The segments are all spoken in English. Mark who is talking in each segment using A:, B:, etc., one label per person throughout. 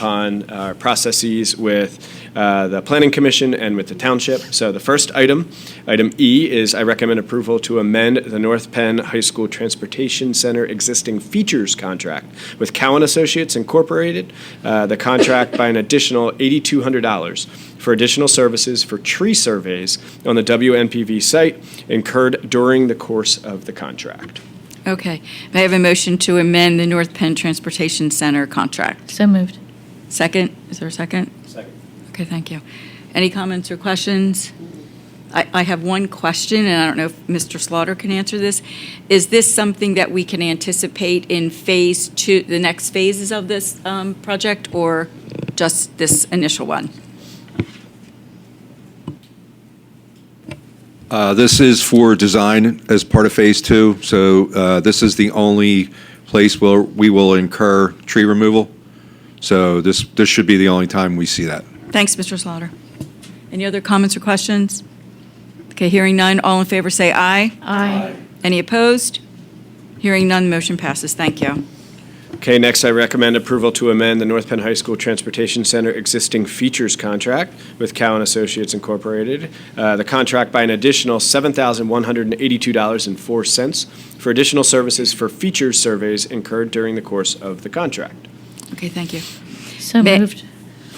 A: upon our processes with uh, the Planning Commission and with the township. So the first item, item E, is I recommend approval to amend the North Penn High School Transportation Center existing features contract with Cowan Associates Incorporated, uh, the contract by an additional $8,200 for additional services for tree surveys on the WNPV site incurred during the course of the contract.
B: Okay. May I have a motion to amend the North Penn Transportation Center contract?
C: So moved.
B: Second, is there a second?
A: Second.
B: Okay, thank you. Any comments or questions? I, I have one question, and I don't know if Mr. Slaughter can answer this. Is this something that we can anticipate in phase two, the next phases of this um, project, or just this initial one?
D: Uh, This is for design as part of Phase Two, so uh, this is the only place where we will incur tree removal. So this, this should be the only time we see that.
B: Thanks, Mr. Slaughter. Any other comments or questions? Okay, hearing none, all in favor say aye.
C: Aye.
B: Any opposed? Hearing none, motion passes. Thank you.
A: Okay, next, I recommend approval to amend the North Penn High School Transportation Center existing features contract with Cowan Associates Incorporated. Uh, The contract by an additional $7,182.04 for additional services for features surveys incurred during the course of the contract.
B: Okay, thank you.
C: So
B: May-
C: moved.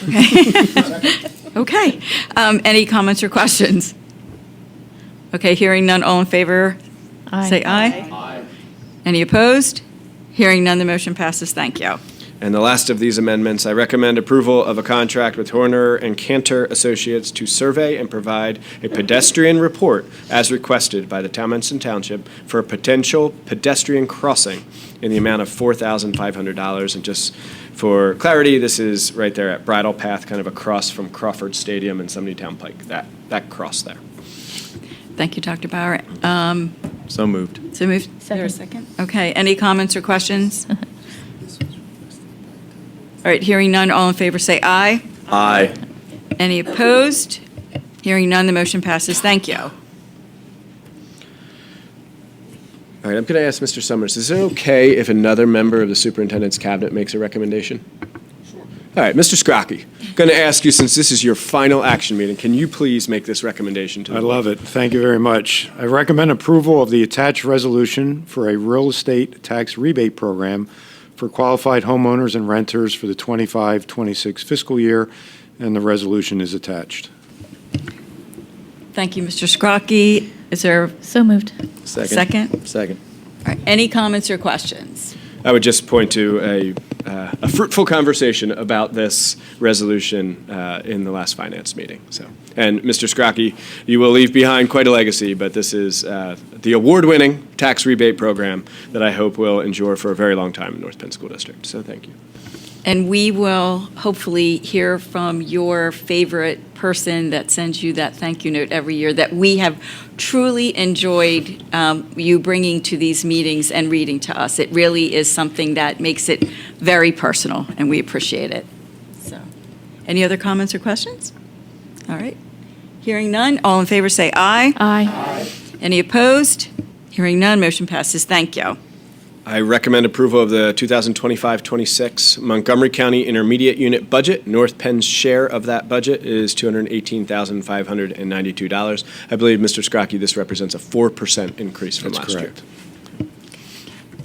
B: Okay, um, any comments or questions? Okay, hearing none, all in favor, say aye. Aye. Any opposed? Hearing none, the motion passes. Thank you.
A: And the last of these amendments, I recommend approval of a contract with Horner and Cantor Associates to survey and provide a pedestrian report as requested by the Townmenson Township for a potential pedestrian crossing in the amount of $4,500. And just for clarity, this is right there at Bridle Path, kind of across from Crawford Stadium and Town Pike, that, that cross there.
B: Thank you, Dr. Bauer. Um,
A: So moved.
B: So move.
C: Second.
B: Okay, any comments or questions? All right, hearing none, all in favor, say aye.
A: Aye.
B: Any opposed? Hearing none, the motion passes. Thank you.
A: All right, I'm going to ask Mr. Summers, is it okay if another member of the superintendent's cabinet makes a recommendation? Sure. All right, Mr. Scrocky, going to ask you, since this is your final action meeting, can you please make this recommendation to the
E: I
A: board?
E: love it. Thank you very much. I recommend approval of the attached resolution for a real estate tax rebate program for qualified homeowners and renters for the 25-26 fiscal year, and the resolution is attached.
B: Thank you, Mr. Scrocky. Is there
C: So moved.
B: Second?
A: Second.
B: All right, Any comments or questions?
A: I would just point to a, uh, a fruitful conversation about this resolution uh, in the last finance meeting, so. And Mr. Scrocky, you will leave behind quite a legacy, but this is uh, the award-winning tax rebate program that I hope will endure for a very long time in North Penn School District, so thank you.
B: And we will hopefully hear from your favorite person that sends you that thank you note every year that we have truly enjoyed um, you bringing to these meetings and reading to us. It really is something that makes it very personal, and we appreciate it. So, any other comments or questions? All right. Hearing none, all in favor say aye.
C: Aye.
B: Any opposed? Hearing none, motion passes. Thank you.
A: I recommend approval of the 2025-26 Montgomery County Intermediate Unit budget. North Penn's share of that budget is $218,592. I believe, Mr. Scrocky, this represents a 4% increase from
E: That's
A: last year.
E: correct.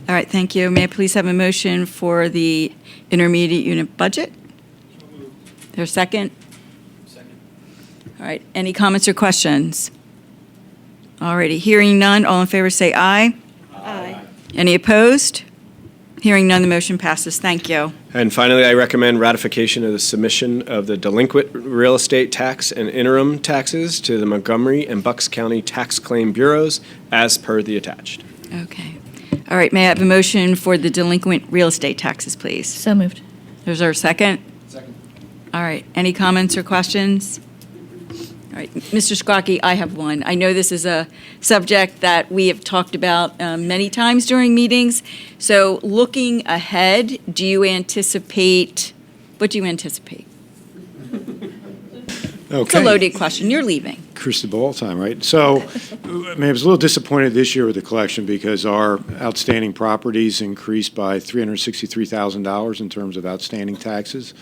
B: All right, thank you. May I please have a motion for the intermediate unit budget? There's a second? Second. All right, any comments or questions? All righty, hearing none, all in favor say aye. Aye. Any opposed? Hearing none, the motion passes. Thank you.
A: And finally, I recommend ratification of the submission of the delinquent real estate tax and interim taxes to the Montgomery and Bucks County Tax Claim Bureaus as per the attached.
B: Okay. All right, may I have a motion for the delinquent real estate taxes, please?
C: So moved.
B: There's our second?
A: Second.
B: All right, any comments or questions? All right, Mr. Scrocky, I have one. I know this is a subject that we have talked about um, many times during meetings. So looking ahead, do you anticipate, what do you anticipate? It's a loaded question, you're leaving.
E: Cristobal time, right? So, I mean, I was a little disappointed this year with the collection because our outstanding properties increased by $363,000 in terms of outstanding taxes.